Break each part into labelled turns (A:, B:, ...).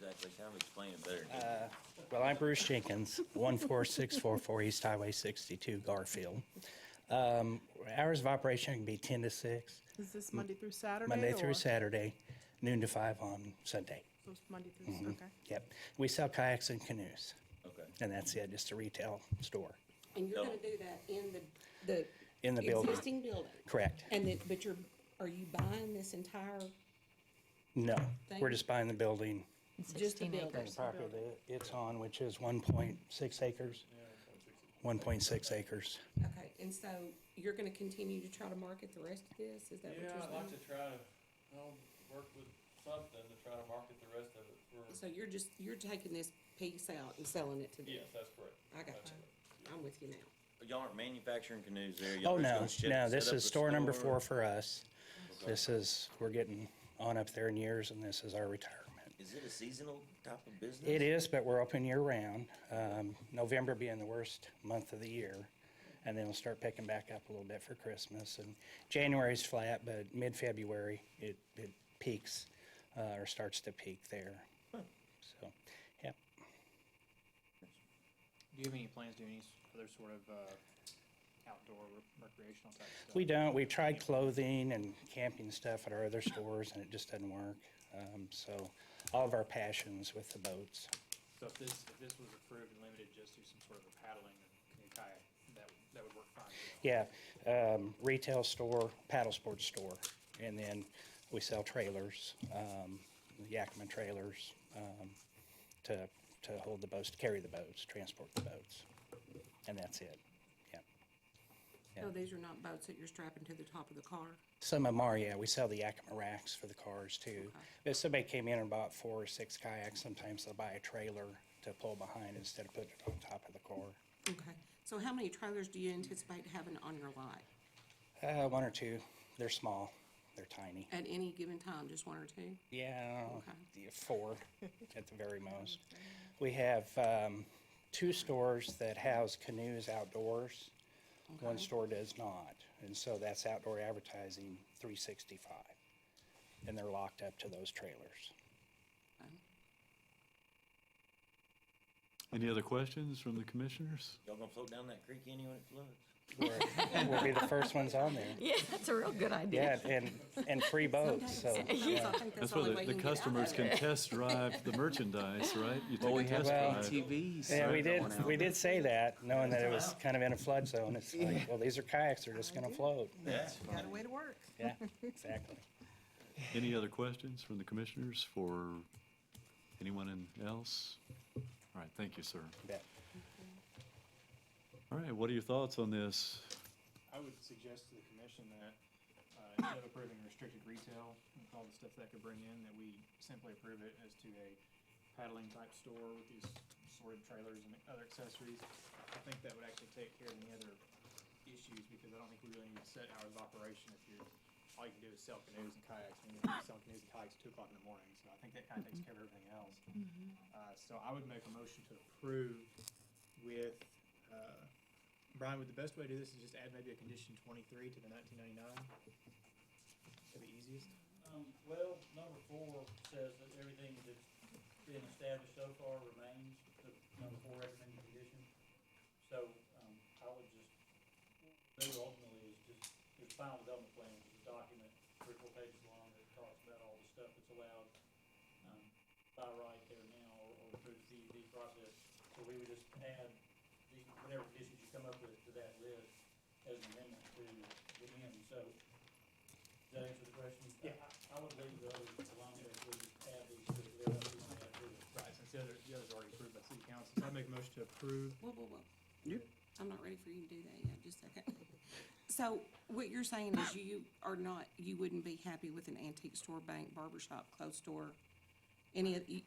A: They kind of explain it better. than
B: Uh,
A: me.
B: Well, I'm Bruce Jenkins, 14644 East Highway 62, Garfield. Um, Hours of operation can be 10 to 6,
C: Is this Monday through Saturday?
B: Monday
C: or-
B: through Saturday, noon to 5 on Sunday.
C: So it's Monday
B: Mm-hmm.
C: through, okay.
B: Yep. We sell kayaks and canoes,
A: Okay.
B: and that's it, just a retail store.
D: And you're
A: No.
D: gonna do that in the, the.
B: In the building.
D: Existing building?
B: Correct.
D: And then, but you're, are you buying this entire,
B: No, we're
D: Thank-
B: just buying the building.
D: just the
E: 16
D: building?
B: and the property that it's on, which is 1.6 acres. 1.6 acres.
D: Okay, and so you're gonna continue to try to market the rest of this? Is that what you're
F: Yeah, I'd like to
D: saying?
F: try to, you know, work with something to try to market the rest of it for,
D: So you're just, you're taking this piece out and selling it to them?
F: yes, that's correct.
D: I got
F: That's
D: you.
F: correct.
D: I'm with you now.
A: But Y'all aren't manufacturing canoes there. y'all
B: Oh,
A: just
B: no,
A: gonna ship-
B: no,
A: set
B: this
A: up
B: is
A: a
B: store number
A: store?
B: four for us. This is, we're getting on up there in years, and this is our retirement.
A: Is it a seasonal type of business?
B: It is, but we're open year-round, um, November being the worst month of the year. And then we'll start picking back up a little bit for Christmas. And January's flat, but mid-February, it, it peaks, uh, or starts to peak there. So, yeah,
G: Do you have any plans to do any s- other sort of uh, outdoor re- recreational type stuff?
B: we don't, we tried clothing and camping stuff at our other stores, and it just doesn't work. Um, So, all of our passions with the boats.
G: So if this, if this was approved and limited just to some sort of a paddling and canoe kayak, that, would- that would work fine. for y'all.
B: Yeah, um, retail store, paddle sports store, and then we sell trailers, um, Yakima trailers, um, to, to hold the boats, to carry the boats, transport the boats. And that's it, yeah. Yeah.
D: So these are not boats that you're strapping to the top of the car?
B: Some of them are, yeah, we sell the Yakima racks for the cars too. If somebody came in and bought four or six kayaks, sometimes they'll buy a trailer to pull behind instead of putting it on top of the car.
D: Okay, so how many trailers do you anticipate having on your lot?
B: Uh, one or two, they're small, they're tiny.
D: At any given time, just one or two?
B: Yeah,
D: Okay.
B: yeah, four at the very most. We have um, two stores that house canoes outdoors. One store does not, and so that's outdoor advertising 365, and they're locked up to those trailers.
H: Any other questions from the commissioners?
A: Y'all gonna float down that creek any when it floods?
B: We're- We'll be the first ones on there.
E: Yeah, that's a real good
B: Yeah,
E: idea.
B: and, and free boats, so.
D: Sometimes I think that's
H: That's
D: the only
H: where
D: way
H: the-
D: you can
H: the
D: get out of
H: customers
D: it.
H: can test drive the merchandise, right? You take a test
B: Well,
H: drive.
B: Yeah, we did, we did say that, knowing that it was kind of in a flood zone. It's like, well, these are kayaks, they're just gonna float.
A: Yeah.
C: Got a way to work.
B: Yeah, exactly.
H: Any other questions from the commissioners for anyone in- else? All right, thank you, sir.
B: Yeah.
H: All right, what are your thoughts on this?
G: I would suggest to the commission that uh, instead of approving restricted retail with all the stuff that could bring in, that we simply approve it as to a paddling type store with these sorted trailers and other accessories. I think that would actually take care of any other issues because I don't think we really need to set hours of operation if you're, all you can do is sell canoes and kayaks. And you're selling canoes and kayaks at two o'clock in the morning, so I think that kind of takes care of everything else. Uh, So I would make a motion to approve with, uh, Brian, would the best way to do this is just add maybe a condition twenty-three to the nineteen ninety-nine? To the easiest?
I: Um, well, number four says that everything that's been established so far remains, the number four recommended condition. So, um, I would just, they would ultimately is just, your final development plan, which is a document, three, or four pages long, that talks about all the stuff that's allowed, um, by right there now, or, or through the DEP process. So we would just add the, whatever conditions you come up with to that list as an amendment to the end, so. Does that answer the question? Yeah. I would leave the others alone, if we just add these to the other, we might add to it.
G: Right, since the other, the other's already approved by city council, so I make a motion to approve.
D: Whoa, whoa, whoa. I'm not ready for you to do that yet, just a second. So what you're saying is you are not, you wouldn't be happy with an antique store, bank, barber shop, clothes store? Any of, you,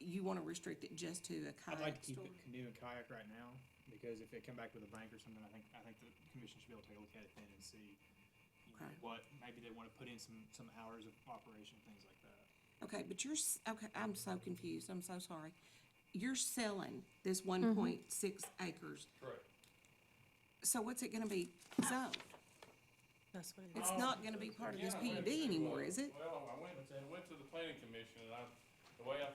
D: you wanna restrict it just to a
G: I'd
D: kayak
G: like to keep
D: store?
G: it canoe and kayak right now, because if they come back with a bank or something, I think, I think the commission should be able to take a look at it then and see, you know,
D: Okay.
G: what, maybe they wanna put in some, some hours of operation, things like that.
D: Okay, but you're, s- okay, I'm so confused, I'm so sorry. You're selling this one point six acres,
F: Correct.
D: so what's it gonna be zoned?
E: That's what it
D: It's
G: Oh.
D: not gonna be part of this
F: Yeah, I went
D: PUD
F: to, uh,
D: anymore, is it?
F: Well, I went, I went to the planning commission and I, the way I